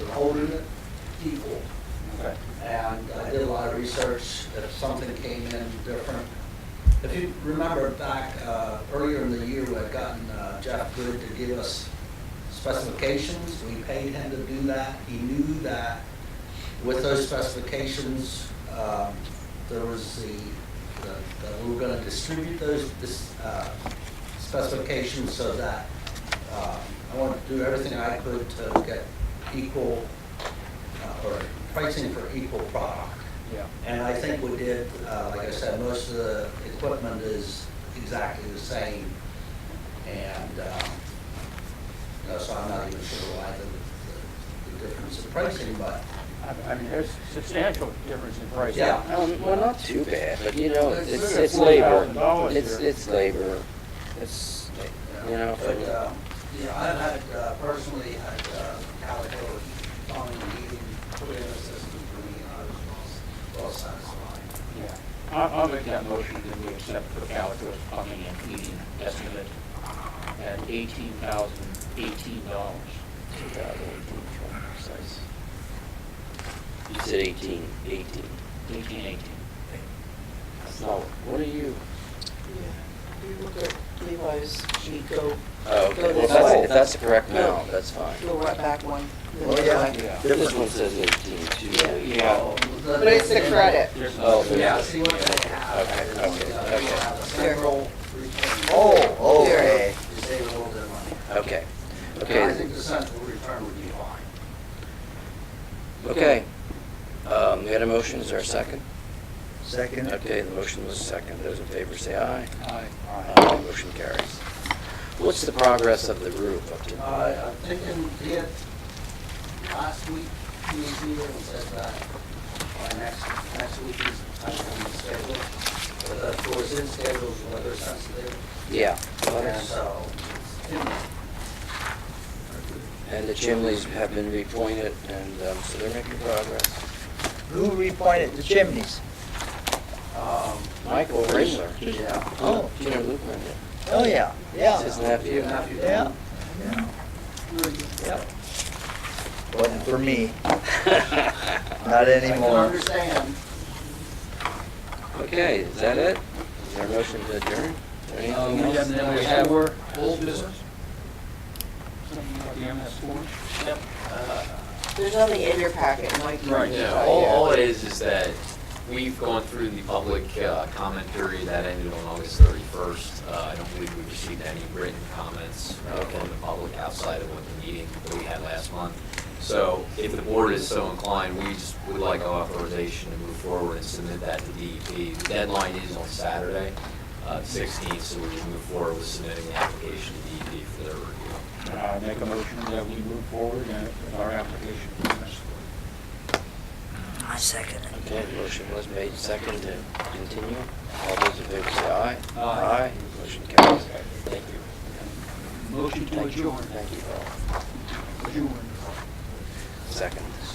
holding it equal. Okay. And I did a lot of research, if something came in different. If you remember back uh, earlier in the year, we had gotten uh, Jeff Good to give us specifications. We paid him to do that. He knew that with those specifications, um, there was the, the- that we were going to distribute those dis- uh, specifications so that uh, I wanted to do everything I could to get equal uh, or pricing for equal product. Yeah. And I think we did, uh, like I said, most of the equipment is exactly the same. And, um, you know, so I'm not even sure why the- the, the difference in pricing, but I- I mean, there's substantial difference in price. Yeah. Um, well, not too bad, but you know, It's- it's, it's it's labor. $4,000 It's, here. it's labor. It's, you know, for- But, um, you know, I've had, uh, personally had, uh, Calico on the meeting, put in a system for me, and I was well, well satisfied. Yeah. I'll, I'll make that motion that we accept for Calico's plumbing and heating estimate at eighteen thousand eighteen dollars. you said eighteen, eighteen. Eighteen eighteen. So, what are you? Yeah, you look at Levi's, you go, Oh, okay, Go well, this that's, way. if that's the correct amount, that's fine. go right back one. then Well, go yeah. back. Yeah. This one says eighteen, too. Yeah. But it's the credit. There's no- Oh, Yeah, there's- see what they have. Okay, is, okay, uh, they okay. have a central return. Oh, oh, There. okay, You save a little bit of money. okay, I okay, think the central return would be fine. okay. Um, we had a motion, is there a second? Second, Okay, the motion was second. Those in favor say aye. Aye. Aye. Motion carries. What's the progress of the roof up to? Uh, I'm thinking, they had last week, he was here and said that by next, next week is time to be scheduled. But of course, in schedules, weather sensitive, Yeah. and so, you know, And the chimneys have been repointed, and um, so they're making progress. who repointed the chimneys? um, Michael Ringler. yeah. Oh. You know Luke Ringler? Oh, yeah, It's his yeah, nephew. Even if you yeah, don't- yeah. Wasn't for me, I not can anymore. understand. Okay, is that it? Is there a motion to adjourn? Is there Um, anything and else? then we have old business. Something about the MS four? There's nothing in your packet, Mike. you Right, can yeah. No, decide, all, yeah. all it is, is that we've gone through the public uh, comment period that ended on August 31st. Uh, I don't believe we received any written comments uh, from the public outside of what the meeting that we had last month. So if the board is so inclined, we just would like authorization to move forward and submit that to DEP. The deadline is on Saturday, uh, 16th, so we would move forward with submitting the application to DEP for their review. I Uh, make a motion that we move forward uh, with our application for MS four. I second it. Okay, the motion was made second to continue. All those in favor say aye. Aye. Motion carries. Thank you. Motion to adjourn. Thank you all.